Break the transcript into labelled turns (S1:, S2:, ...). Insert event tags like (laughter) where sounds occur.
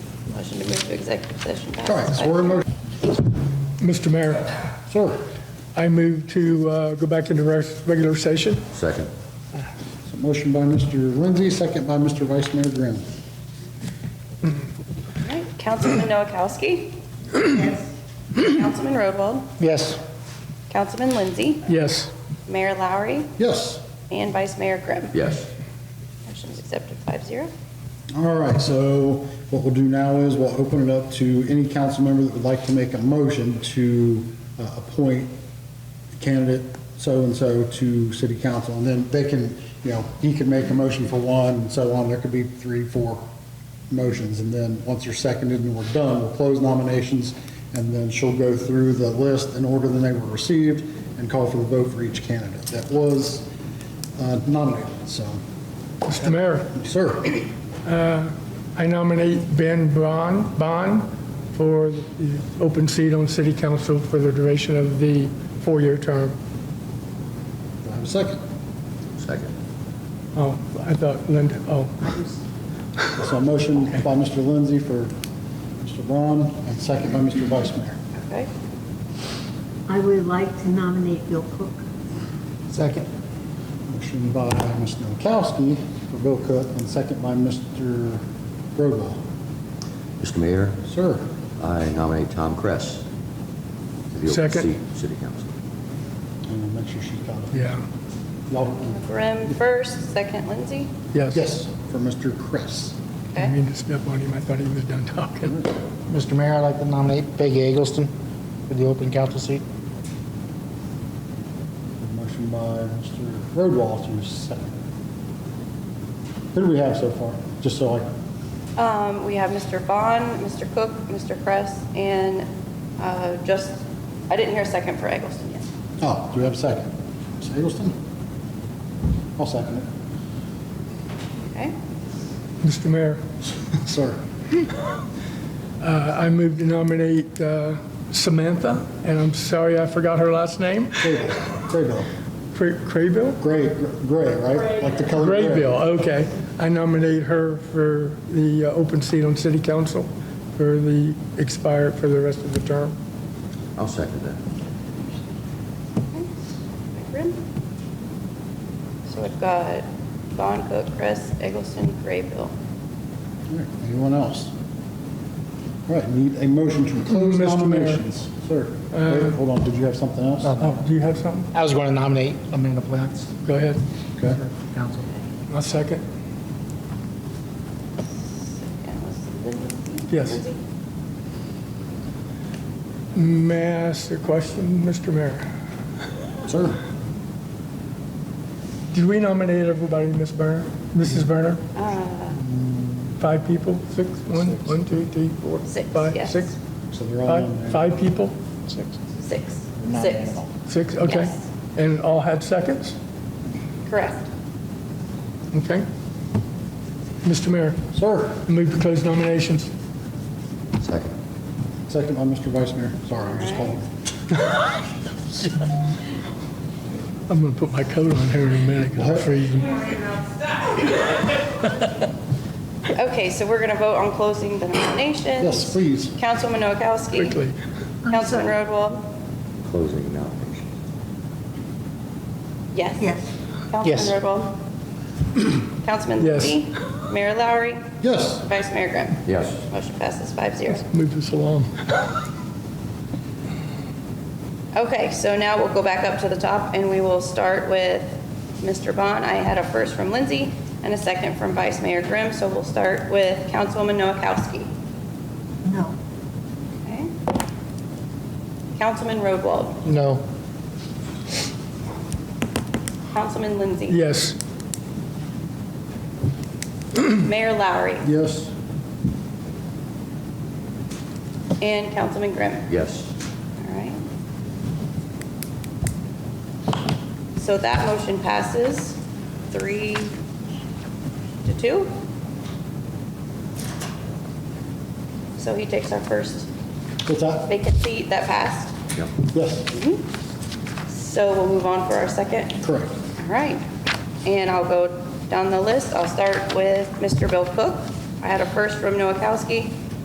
S1: Motion to move to executive session.
S2: All right, so we're in motion.
S3: Mr. Mayor,
S2: Sir,
S3: I move to uh, go back into res- regular session.
S4: Second.
S2: so motion by Mr. Lindsay, second by Mr. Vice Mayor Graham.
S5: All right, Councilman Noakowski? Yes. Councilman Rodwald?
S2: Yes.
S5: Councilman Lindsay?
S3: Yes.
S5: Mayor Lowry?
S2: Yes.
S5: And Vice Mayor Grimm?
S4: Yes.
S5: Motion is accepted, five zero.
S2: All right, so what we'll do now is we'll open it up to any council member that would like to make a motion to uh, appoint candidate so-and-so to city council. And then they can, you know, he can make a motion for one and so on. There could be three, four motions. And then once they're seconded and we're done, we'll close nominations. And then she'll go through the list in order that they were received and call for the vote for each candidate that was uh, nominated. So,
S3: Mr. Mayor,
S2: sir.
S3: I nominate Ben Bond, Bond for the open seat on city council for the duration of the four-year term.
S2: Do I have a second?
S4: Second.
S3: Oh, I thought Linda, oh,
S2: So a motion by Mr. Lindsay for Mr. Braun, and second by Mr. Vice Mayor.
S5: Okay.
S6: I would like to nominate Bill Cook.
S2: Second. Motion by Ms. Noakowski for Bill Cook, and second by Mr. Rogal.
S4: Mr. Mayor,
S2: Sir,
S4: I nominate Tom Kress. to the open
S3: Second.
S4: seat, City Council.
S2: and make sure she's got it.
S3: yeah,
S2: Y'all-
S5: Grimm first, second Lindsay.
S3: yes.
S2: Yes, for Mr. Chris.
S3: I
S5: Okay.
S3: mean to step on him, I thought he was done talking.
S7: Mr. Mayor, I'd like to nominate Peggy Eggleston for the open council seat.
S2: Motion by Mr. Roadwall to second. Who do we have so far? Just so I,
S5: Um, we have Mr. Bond, Mr. Cook, Mr. Kress, and, uh, just, I didn't hear a second for Eggleston yet.
S2: oh, do we have a second? Ms. Eggleston? I'll second it. (laughs)
S5: Okay?
S3: Mr. Mayor,
S2: Sir.
S3: uh, I move to nominate uh, Samantha, and I'm sorry I forgot her last name,
S2: Graybill.
S3: Cra- Craybill?
S2: Gray, gray, right? Like the color gray.
S3: Graybill, okay. I nominate her for the uh, open seat on city council for the expired, for the rest of the term.
S4: I'll second that.
S5: Grimm. So we've got Bond, Cook, Kress, Eggleston, Graybill.
S2: All right, Anyone else? All right, need a motion to close
S3: Mr. Mayor. Uh,
S2: nominations. Sir, wait, hold on, did you have something else?
S3: Oh, do you have something?
S7: I was going to nominate Amanda Plax
S3: Go ahead.
S2: Okay.
S7: for council.
S3: I'll second.
S5: And was Lindsay?
S3: Yes.
S5: Lindsay?
S3: May I ask a question, Mr. Mayor?
S2: Sir,
S3: Did we nominate everybody, Ms. Berner, Mrs.
S2: Mm-hmm.
S3: Berner? Five people? Six? One, one, two, three, four,
S5: Six,
S3: five,
S5: yes.
S3: six?
S2: so they're all in
S3: Five,
S2: there.
S3: five people?
S5: Six.
S7: Not
S5: Six.
S7: animal.
S3: Six, okay.
S5: Yes.
S3: And all had seconds?
S5: Correct.
S3: Okay. Mr. Mayor,
S2: Sir,
S3: move to close nominations.
S4: Second.
S2: second by Mr. Vice Mayor. Sorry, I'm just calling.
S3: I'm going to put my coat on here in a minute 'cause I'm freezing.
S5: Okay, so we're going to vote on closing the nominations.
S2: Yes, please.
S5: Councilwoman Noakowski.
S3: Quickly.
S5: Councilman Rodwell.
S4: Closing nominations.
S5: Yes.
S6: Yes.
S7: Yes.
S5: Councilman Rodwell.
S3: (clears throat)
S5: Councilman
S3: Yes.
S5: Lee. Mayor Lowry.
S2: Yes,
S5: Vice Mayor Grimm.
S4: Yes.
S5: Motion passes five zero.
S3: Move this along.
S5: Okay, so now we'll go back up to the top and we will start with Mr. Bond. I had a first from Lindsay and a second from Vice Mayor Grimm, so we'll start with Councilwoman Noakowski.
S6: No.
S5: Okay. Councilman Rodwald.
S7: No.
S5: Councilman Lindsay.
S3: Yes.
S5: Mayor Lowry.
S2: yes,
S5: And Councilman Grimm.
S4: Yes.
S5: All right. So that motion passes three to two. So he takes our first
S2: what's that?
S5: vacant seat that passed.
S4: Yep.
S2: Yes,
S5: So we'll move on for our second.
S2: correct.
S5: All right. And I'll go down the list. I'll start with Mr. Bill Cook. I had a first from Noakowski